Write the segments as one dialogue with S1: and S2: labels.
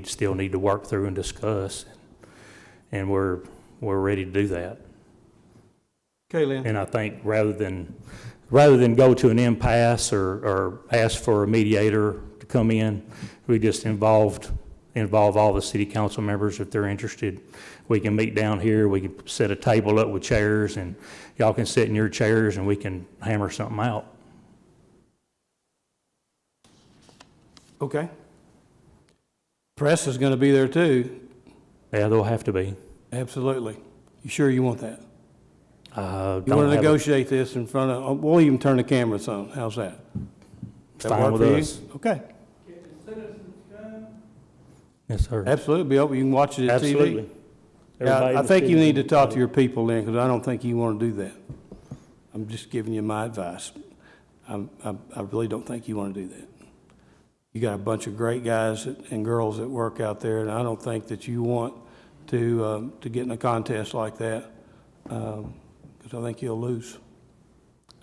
S1: we still need to work through and discuss. And we're, we're ready to do that.
S2: Okay, Lynn.
S1: And I think rather than, rather than go to an impasse or, or ask for a mediator to come in, we just involved, involve all the city council members if they're interested. We can meet down here, we can set a table up with chairs, and y'all can sit in your chairs, and we can hammer something out.
S2: Okay. Press is going to be there too.
S1: Yeah, there'll have to be.
S2: Absolutely. You sure you want that?
S1: Uh, don't
S2: You want to
S1: have a-
S2: negotiate this in front of, oh, we'll even turn the cameras on. How's that? That
S1: Fine
S2: work
S1: with
S2: for you?
S1: us.
S2: Okay,
S1: Yes, sir.
S2: absolutely. Be open. You can watch it at TV.
S1: Absolutely.
S2: Yeah,
S1: Everybody
S2: I
S1: was
S2: think you
S1: sitting-
S2: need to talk to your people then, because I don't think you want to do that. I'm just giving you my advice. I'm, I, I really don't think you want to do that. You got a bunch of great guys that- and girls that work out there, and I don't think that you want to, um, to get in a contest like that, um, because I think you'll lose.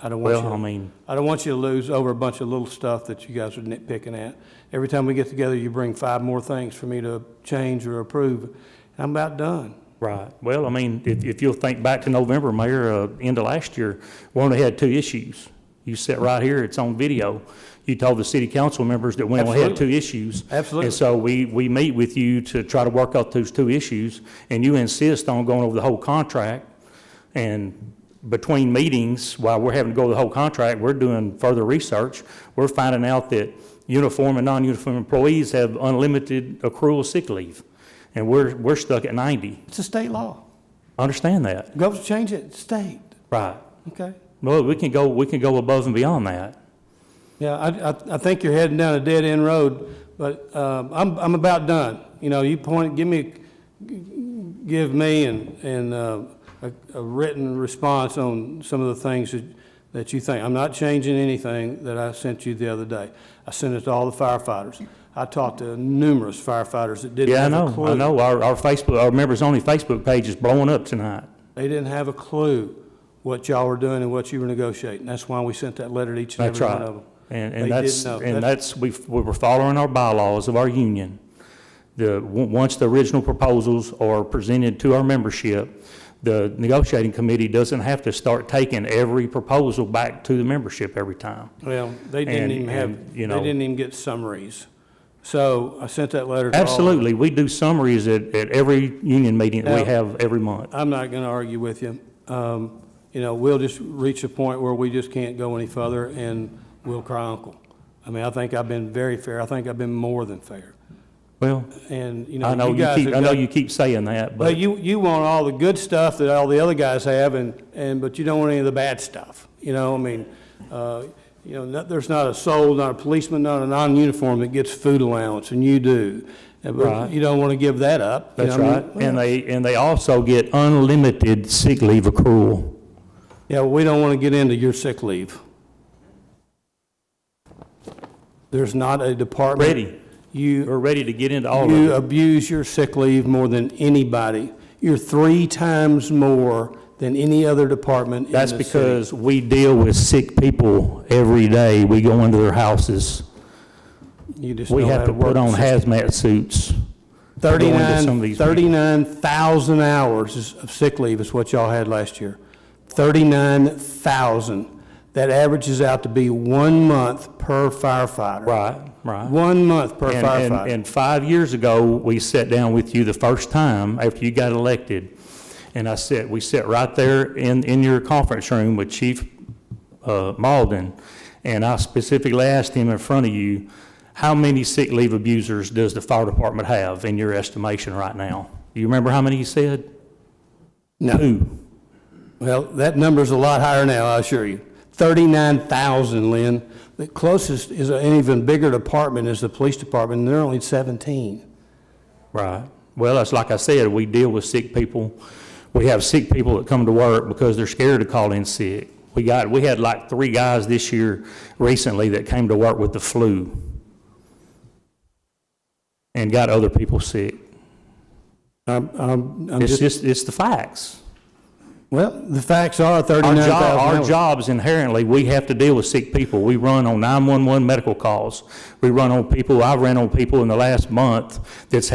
S2: I don't want you.
S1: Well, um, I mean,
S2: I don't want you to lose over a bunch of little stuff that you guys are nitpicking at. Every time we get together, you bring five more things for me to change or approve. I'm about done.
S1: right. Well, I mean, if, if you'll think back to November, Mayor, uh, end of last year, we only had two issues. You sit right here, it's on video. You told the city council members that we only had two issues.
S2: Absolutely.
S1: And so we, we meet with you to try to work out those two issues, and you insist on going over the whole contract. And between meetings, while we're having to go over the whole contract, we're doing further research. We're finding out that uniform and non-uniform employees have unlimited accrual sick leave, and we're, we're stuck at 90.
S2: It's a state law.
S1: Understand that,
S2: Governors change it, state,
S1: right?
S2: okay?
S1: Well, we can go, we can go above and beyond that.
S2: Yeah, I, I, I think you're heading down a dead-end road, but, um, I'm, I'm about done. You know, you point, give me, give me and, and, uh, a, a written response on some of the things that, that you think. I'm not changing anything that I sent you the other day. I sent it to all the firefighters. I talked to numerous firefighters that didn't
S1: Yeah, I
S2: have a
S1: know,
S2: clue.
S1: I know, our, our Facebook, our members-only Facebook page is blowing up tonight.
S2: They didn't have a clue what y'all were doing and what you were negotiating. That's why we sent that letter to each and
S1: That's
S2: every one
S1: right.
S2: of them.
S1: And,
S2: They
S1: and that's,
S2: didn't know.
S1: and
S2: That's-
S1: that's, we, we were following our bylaws of our union. The, on- once the original proposals are presented to our membership, the negotiating committee doesn't have to start taking every proposal back to the membership every time.
S2: Well, they didn't
S1: And-
S2: even have,
S1: and,
S2: they
S1: you know-
S2: didn't even get summaries. So I sent that letter to all. of them.
S1: Absolutely, we do summaries at, at every union meeting that
S2: Now-
S1: we have every month.
S2: I'm not going to argue with you. Um, You know, we'll just reach a point where we just can't go any further, and we'll cry uncle. I mean, I think I've been very fair. I think I've been more than fair.
S1: Well,
S2: And, you know,
S1: I know
S2: you
S1: you
S2: guys
S1: keep, I
S2: have
S1: know
S2: got
S1: you keep saying that,
S2: But
S1: but,
S2: you, you want all the good stuff that all the other guys have, and, and, but you don't want any of the bad stuff, you know, I mean, uh, you know, not- there's not a soul, not a policeman, not a non-uniform that gets food allowance, and you do. And but
S1: Right.
S2: You don't want to give that up. you
S1: that's
S2: know, I
S1: right.
S2: mean,
S1: And they, and they also get unlimited sick leave accrual.
S2: Yeah, well, we don't want to get into your sick leave. There's not a department.
S1: Ready.
S2: You,
S1: We're ready to get into all of it.
S2: You abuse your sick leave more than anybody. You're three times more than any other department in the
S1: That's
S2: city.
S1: because we deal with sick people every day. We go into their houses.
S2: You just
S1: We
S2: don't
S1: have to
S2: work
S1: put on
S2: the
S1: hazmat suits. go into some of
S2: 39,
S1: these
S2: 39,000 hours is- of sick leave is what y'all had last year. 39,000. That averages out to be one month per firefighter.
S1: Right, right.
S2: One month per
S1: And- and-
S2: firefighter.
S1: And five years ago, we sat down with you the first time after you got elected. And I said, we sat right there in, in your conference room with Chief uh, Malden. And I specifically asked him in front of you, how many sick leave abusers does the fire department have in your estimation right now? Do you remember how many he said?
S2: No,
S1: Two.
S2: well, that number's a lot higher now, I assure you. 39,000, Lynn. The closest is an even bigger department is the police department, and they're only 17.
S1: Right. Well, that's like I said, we deal with sick people. We have sick people that come to work because they're scared to call in sick. We got, we had like three guys this year recently that came to work with the flu and got other people sick.
S2: I'm, I'm I'm
S1: It's
S2: just,
S1: just, it's the facts.
S2: Well, the facts are
S1: Our
S2: thirty-nine
S1: job,
S2: thousand
S1: our jobs inherently, we have to deal with sick people. We run on 911 medical calls. We run on people, I've ran on people in the last month that's